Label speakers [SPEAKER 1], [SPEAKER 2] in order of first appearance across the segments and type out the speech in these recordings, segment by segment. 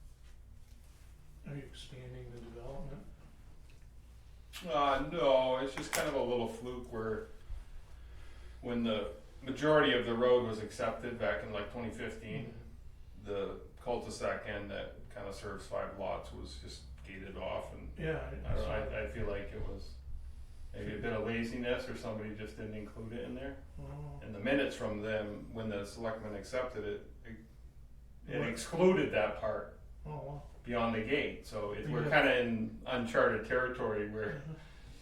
[SPEAKER 1] Uh, fluke where when the majority of the road was accepted back in like twenty fifteen, the cul-de-sac end that kind of serves five lots was just gated off and
[SPEAKER 2] Yeah.
[SPEAKER 1] I don't know,
[SPEAKER 2] saw
[SPEAKER 1] I,
[SPEAKER 2] that.
[SPEAKER 1] I feel like it was maybe a bit of laziness or somebody just didn't include it in there.
[SPEAKER 2] Oh.
[SPEAKER 1] And the minutes from them, when the selectmen accepted it, it, it
[SPEAKER 2] What?
[SPEAKER 1] excluded that part
[SPEAKER 2] Oh, wow.
[SPEAKER 1] beyond the gate, so it, we're
[SPEAKER 2] Yeah.
[SPEAKER 1] kinda in uncharted territory where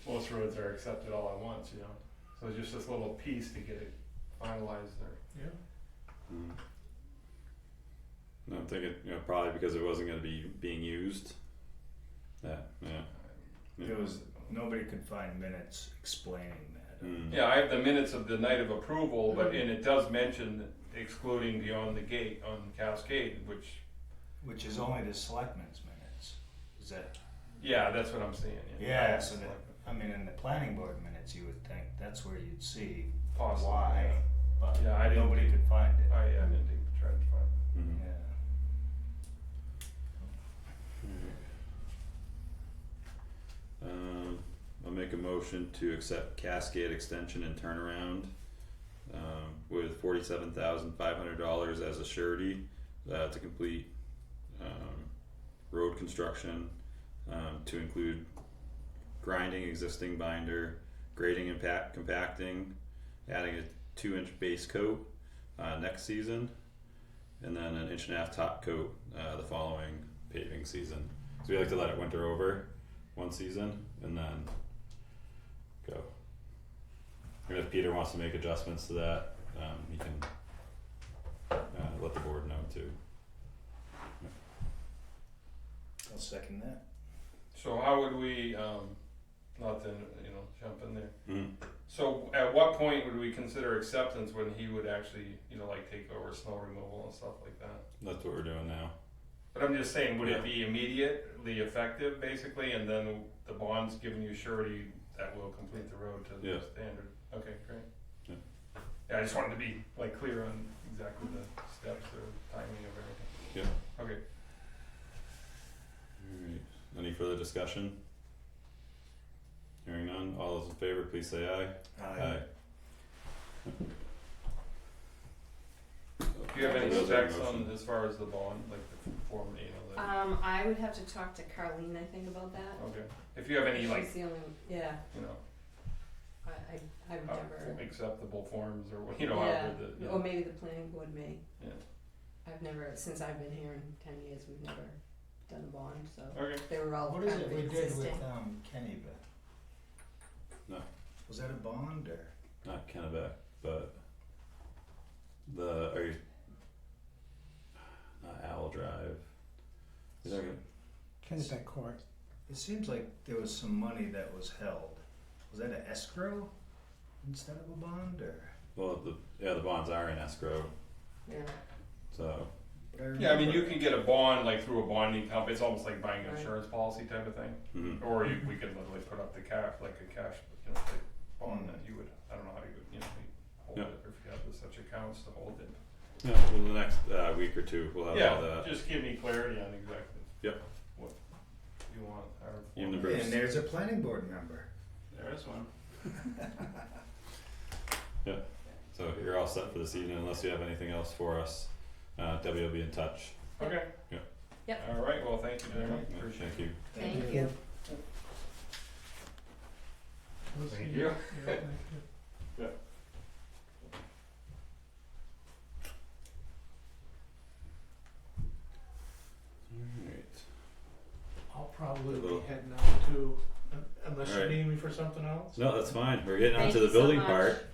[SPEAKER 1] most roads are accepted all at once, you know? So it's just this little piece to get it finalized there.
[SPEAKER 2] Yeah.
[SPEAKER 3] Mm. No, I'm thinking, you know, probably because it wasn't gonna be being used. Yeah, yeah.
[SPEAKER 4] There was, nobody could find minutes explaining that. uh,
[SPEAKER 3] Mm.
[SPEAKER 1] Yeah, I have the minutes of the night of approval, but, and it does mention excluding beyond the gate on Cascade, which,
[SPEAKER 4] Which is only the selectmen's minutes. Is that,
[SPEAKER 1] yeah, that's what I'm saying.
[SPEAKER 4] yeah, so that, I mean, in the planning board minutes, you would think that's where you'd see
[SPEAKER 1] Possible,
[SPEAKER 4] why, but
[SPEAKER 1] Yeah, I didn't
[SPEAKER 4] nobody
[SPEAKER 1] think-
[SPEAKER 4] could find it.
[SPEAKER 1] I, I didn't even try to find it.
[SPEAKER 3] Mhm.
[SPEAKER 4] Yeah.
[SPEAKER 3] Um, I'll make a motion to accept Cascade Extension and Turnaround um, with forty-seven thousand five hundred dollars as a surety uh, to complete um, road construction um, to include grinding existing binder, grading and pack compacting, adding a two-inch base coat uh, next season, and then an inch and a half top coat uh, the following paving season. So we like to let it winter over one season and then go. And if Peter wants to make adjustments to that, um, he can uh, let the board know too.
[SPEAKER 4] I'll second that.
[SPEAKER 1] So how would we, um, not to, you know, jump in there,
[SPEAKER 3] Mm.
[SPEAKER 1] so at what point would we consider acceptance when he would actually, you know, like take over snow removal and stuff like that?
[SPEAKER 3] That's what we're doing now.
[SPEAKER 1] But I'm just saying, would it be immediately effective basically, and then the bond's giving you surety that will complete the road to
[SPEAKER 3] Yeah.
[SPEAKER 1] the standard? Okay,
[SPEAKER 3] Yeah.
[SPEAKER 1] great. Yeah, I just wanted to be like clear on exactly the steps or timing of everything.
[SPEAKER 3] Alright, any further discussion? Hearing none, all those in favor, please say aye.
[SPEAKER 1] Do you have any
[SPEAKER 3] Those are
[SPEAKER 1] specs on
[SPEAKER 3] motion.
[SPEAKER 1] as far as the bond, like the form, you know, the,
[SPEAKER 5] Um, I would have to talk to Carlene, I think, about that.
[SPEAKER 1] okay, if you have any like,
[SPEAKER 5] She's the only, yeah,
[SPEAKER 1] you know,
[SPEAKER 5] I, I, I would
[SPEAKER 1] Uh,
[SPEAKER 5] never,
[SPEAKER 1] acceptable forms or, what- you know,
[SPEAKER 5] yeah,
[SPEAKER 1] however the,
[SPEAKER 5] or
[SPEAKER 1] yeah.
[SPEAKER 5] maybe the planning board may.
[SPEAKER 1] Yeah.
[SPEAKER 5] I've never, since I've been here in ten years, we've never done a bond, so
[SPEAKER 1] Okay,
[SPEAKER 5] they were all
[SPEAKER 4] Uh, What
[SPEAKER 5] kind
[SPEAKER 4] is it
[SPEAKER 5] of
[SPEAKER 4] we did with,
[SPEAKER 5] existing.
[SPEAKER 4] um, Kennybeth?
[SPEAKER 3] No.
[SPEAKER 4] Was that a bond or?
[SPEAKER 3] Not Kennebec, but the, are you? Not Owl Drive. Is there,
[SPEAKER 6] Kennebec Court.
[SPEAKER 4] It seems like there was some money that was held. Was that an escrow instead of a bond or?
[SPEAKER 3] well, the, yeah, the bonds are in escrow,
[SPEAKER 5] Yeah,
[SPEAKER 3] so,
[SPEAKER 4] but I
[SPEAKER 1] yeah, I mean,
[SPEAKER 4] remember-
[SPEAKER 1] you can get a bond like through a bonding company, it's almost like buying an insurance policy type of thing.
[SPEAKER 3] mhm.
[SPEAKER 1] Or you, we could literally put up the cash, like a cash, you know, like bond that you would, I don't know how you would, you know, you hold
[SPEAKER 3] Yeah.
[SPEAKER 1] it, or if you have such accounts to hold it.
[SPEAKER 3] Yeah, well, the next uh, week or two, we'll have all
[SPEAKER 1] Yeah,
[SPEAKER 3] that.
[SPEAKER 1] just give me clarity on exactly.
[SPEAKER 3] Yep.
[SPEAKER 1] What you want, our
[SPEAKER 3] Even the
[SPEAKER 1] form.
[SPEAKER 3] br- Bruce.
[SPEAKER 4] And there's a planning board member.
[SPEAKER 1] There is one.
[SPEAKER 3] So you're all set for this evening, unless you have anything else for us. Uh, Debbie will be in touch.
[SPEAKER 1] Okay.
[SPEAKER 3] Yeah.
[SPEAKER 5] Yep.
[SPEAKER 1] All right, well, thank you very much,
[SPEAKER 3] Yeah,
[SPEAKER 1] appreciate
[SPEAKER 3] Thank you.
[SPEAKER 5] thank you.
[SPEAKER 2] We'll
[SPEAKER 1] Thank
[SPEAKER 2] see.
[SPEAKER 1] you.
[SPEAKER 2] Yeah, thank you.
[SPEAKER 3] Alright.
[SPEAKER 2] I'll probably be
[SPEAKER 3] Hello.
[SPEAKER 2] heading out too, un- unless you
[SPEAKER 3] Alright.
[SPEAKER 2] need me for something else.
[SPEAKER 3] No, that's fine. We're getting
[SPEAKER 5] Thank
[SPEAKER 3] onto the
[SPEAKER 5] you so
[SPEAKER 3] building
[SPEAKER 5] much.
[SPEAKER 3] part.